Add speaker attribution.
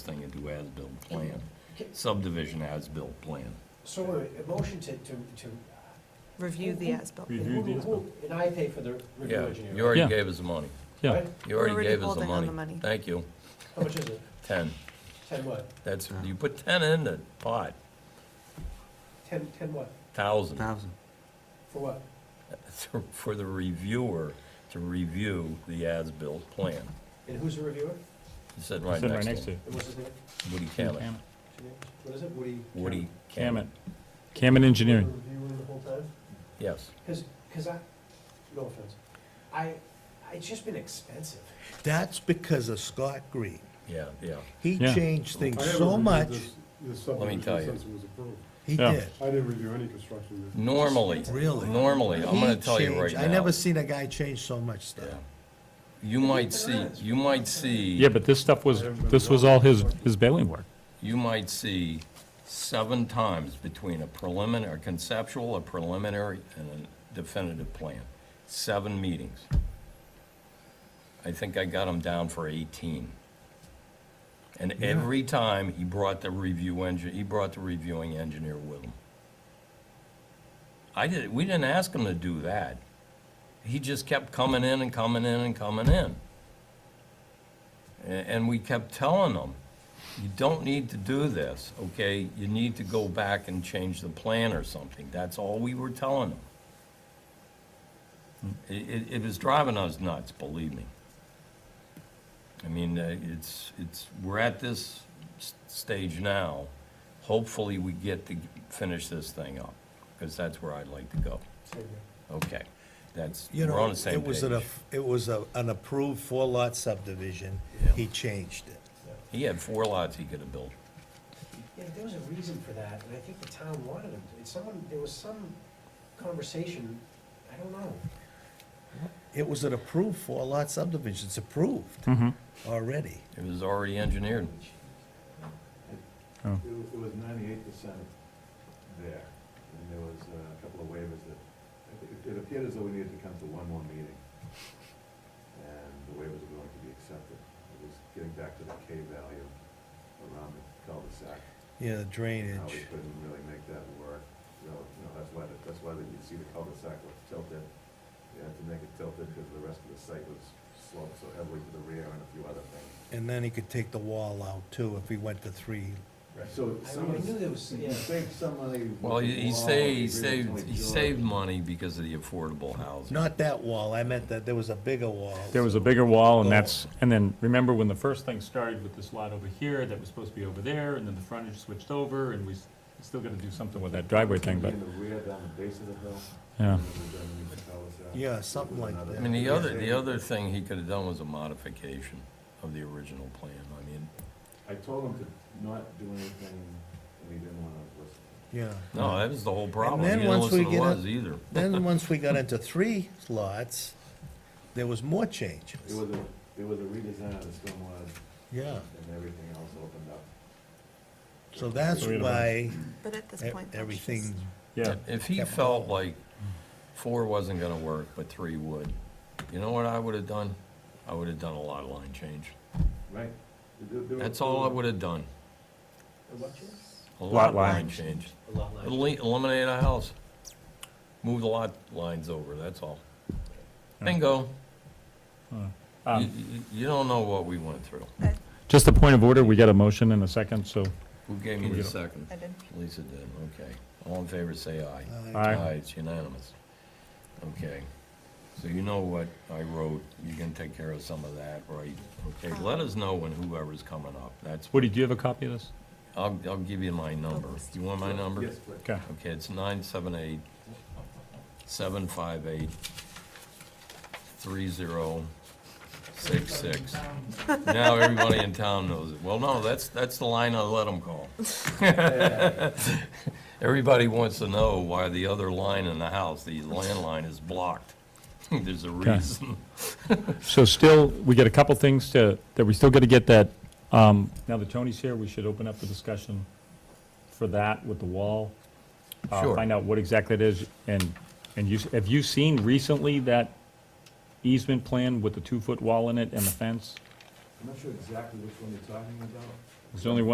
Speaker 1: thing and do as-built plan, subdivision as-built plan.
Speaker 2: So wait, a motion to, to, to.
Speaker 3: Review the ASBIL.
Speaker 2: and
Speaker 4: Review
Speaker 2: who-
Speaker 4: the
Speaker 2: who- And I pay for the review
Speaker 1: Yeah,
Speaker 2: engineer.
Speaker 1: you already
Speaker 4: Yeah.
Speaker 1: gave us the money.
Speaker 4: Yeah,
Speaker 2: right?
Speaker 1: You
Speaker 3: We're
Speaker 1: already
Speaker 3: already
Speaker 1: gave us the
Speaker 3: holding on
Speaker 1: money.
Speaker 3: the money.
Speaker 1: Thank you.
Speaker 2: How much is it?
Speaker 1: Ten.
Speaker 2: Ten what?
Speaker 1: That's, you put ten in the pot,
Speaker 2: Ten, ten what?
Speaker 1: thousand,
Speaker 5: Thousand.
Speaker 2: For what?
Speaker 1: for the reviewer to review the as-built plan.
Speaker 2: And who's the reviewer?
Speaker 1: You said right
Speaker 4: sitting right
Speaker 1: next to
Speaker 4: next to
Speaker 1: him.
Speaker 4: it.
Speaker 2: And what's his name?
Speaker 1: Woody Cammett.
Speaker 2: What is it? Woody?
Speaker 1: Woody Cammett,
Speaker 4: Camet, Camet Engineering.
Speaker 2: Reviewing the whole time?
Speaker 1: yes.
Speaker 2: Cause, 'cause I, no offense, I, it's just been expensive.
Speaker 6: That's because of Scott Green.
Speaker 1: Yeah, yeah.
Speaker 6: He
Speaker 4: Yeah.
Speaker 6: changed things
Speaker 7: I haven't
Speaker 6: so
Speaker 7: reviewed
Speaker 6: much,
Speaker 7: this- this
Speaker 1: Let me
Speaker 7: subdivision
Speaker 1: tell you.
Speaker 7: since it was approved.
Speaker 6: he
Speaker 4: Yeah.
Speaker 6: did,
Speaker 7: I didn't review any construction. this-
Speaker 1: Normally,
Speaker 6: really.
Speaker 1: normally, I'm gonna
Speaker 6: He
Speaker 1: tell you right
Speaker 6: changed.
Speaker 1: now.
Speaker 6: I never seen a guy change so much stuff.
Speaker 1: Yeah. You might see, you might see.
Speaker 4: Yeah, but this stuff was, this was all his, his bailing work.
Speaker 1: you might see seven times between a preliminary, a conceptual, a preliminary, and a definitive plan. Seven meetings. I think I got him down for 18. And every time, he brought the review engine, he brought the reviewing engineer with him. I did, we didn't ask him to do that. He just kept coming in and coming in and coming in. A- And we kept telling them, you don't need to do this, okay? You need to go back and change the plan or something. That's all we were telling them. It, it, it was driving us nuts, believe me. I mean, uh, it's, it's, we're at this s- stage now. Hopefully, we get to finish this thing up, because that's where I'd like to go.
Speaker 2: Same here.
Speaker 1: Okay, that's,
Speaker 6: You
Speaker 1: we're on
Speaker 6: know,
Speaker 1: the same
Speaker 6: it was an,
Speaker 1: page.
Speaker 6: aff- it was a- an approved four-lot subdivision,
Speaker 1: Yeah.
Speaker 6: he changed it.
Speaker 1: He had four lots he could have built.
Speaker 2: Yeah, there was a reason for that, and I think the town wanted him to. It's Someone, there was some conversation, I don't know.
Speaker 6: It was an approved four-lot subdivision, it's approved
Speaker 4: Mm-hmm.
Speaker 6: already.
Speaker 1: It was already engineered.
Speaker 4: Oh.
Speaker 8: It wa- it was ninety-eight percent there, and there was uh, a couple of waivers that, it- it appeared as though we needed to come to one more meeting. And the waivers were going to be accepted. It was getting back to the K value around the cul-de-sac.
Speaker 6: Yeah, the
Speaker 8: How we
Speaker 6: drainage,
Speaker 8: couldn't really make that work. You know, you know, that's why, the- that's why that you see the cul-de-sac was tilted. You had to make it tilted because the rest of the site was sloped so heavily to the rear and a few other things.
Speaker 6: and then he could take the wall out too if he went to three.
Speaker 8: So
Speaker 2: I
Speaker 8: some,
Speaker 2: mean, I knew there was,
Speaker 8: you
Speaker 2: yeah.
Speaker 8: saved some money. with
Speaker 1: Well,
Speaker 8: the
Speaker 1: he he
Speaker 8: wall,
Speaker 1: saved, he
Speaker 8: you really
Speaker 1: saved,
Speaker 8: only
Speaker 1: he
Speaker 8: drew it.
Speaker 1: saved money because of the affordable housing.
Speaker 6: Not that wall, I meant that there was a bigger wall.
Speaker 4: There was a bigger
Speaker 1: Oh.
Speaker 4: wall, and that's, and then, remember when the first thing started with this lot over here, that was supposed to be over there, and then the frontage switched over, and we s- still gotta do something with that driveway thing, but,
Speaker 8: In the rear, down the base of the hill.
Speaker 4: yeah.
Speaker 8: and then we could tell us that.
Speaker 6: Yeah, something like
Speaker 8: Another-
Speaker 6: that.
Speaker 1: I mean, the other, the
Speaker 8: Yeah.
Speaker 1: other thing he could have done was a modification of the original plan. I mean,
Speaker 8: I told him to not do anything, and he didn't want to listen.
Speaker 6: Yeah.
Speaker 1: no, that was the whole problem.
Speaker 6: then
Speaker 1: He didn't
Speaker 6: once
Speaker 1: listen
Speaker 6: we
Speaker 1: to
Speaker 6: get
Speaker 1: us
Speaker 6: up-
Speaker 1: either.
Speaker 6: Then, once we got into three lots, there was more changes.
Speaker 8: It was a, it was a redesign of the stormwater
Speaker 6: Yeah,
Speaker 8: and everything else opened up.
Speaker 6: so that's why
Speaker 3: But at this
Speaker 6: e-
Speaker 3: point. that's
Speaker 6: everything,
Speaker 3: just-
Speaker 4: Yeah,
Speaker 1: If he
Speaker 6: Yeah.
Speaker 1: felt like four wasn't gonna work, but three would, you know what I would have done? I would have done a lot line change.
Speaker 8: Right? There- there were-
Speaker 1: That's all I would have done,
Speaker 2: A what change?
Speaker 1: a
Speaker 4: Lot
Speaker 1: lot
Speaker 4: line
Speaker 1: line change.
Speaker 2: A lot like.
Speaker 1: Elimi- Eliminate a house. Move the lot lines over, that's all. Bingo. You,
Speaker 4: um,
Speaker 1: you- you don't know what we went through.
Speaker 4: just a point of order, we got a motion in a second, so,
Speaker 1: Who gave me the second?
Speaker 3: I did.
Speaker 1: Lisa did, okay. All in favor, say aye.
Speaker 6: Aye.
Speaker 4: Aye.
Speaker 1: it's unanimous. Okay, so you know what I wrote, you can take care of some of that, right? Okay, let us know when whoever's coming up, that's,
Speaker 4: Woody, do you have a copy of this?
Speaker 1: I'll, I'll give you my number. You want my number?
Speaker 8: Yes, please.
Speaker 4: Okay,
Speaker 1: Okay, it's nine seven eight, seven five eight, three zero, six six. Now everybody in town knows it. Well, no, that's, that's the line I let them call. Everybody wants to know why the other line in the house, the landline, is blocked. There's a reason.
Speaker 4: so still, we got a couple things to, that we still gotta get that, um, now that Tony's here, we should open up the discussion for that with the wall. uh,
Speaker 1: Sure.
Speaker 4: Find out what exactly it is, and, and you, have you seen recently that easement plan with the two-foot wall in it and the fence?
Speaker 8: I'm not sure exactly which one you're talking about.
Speaker 4: It's the only one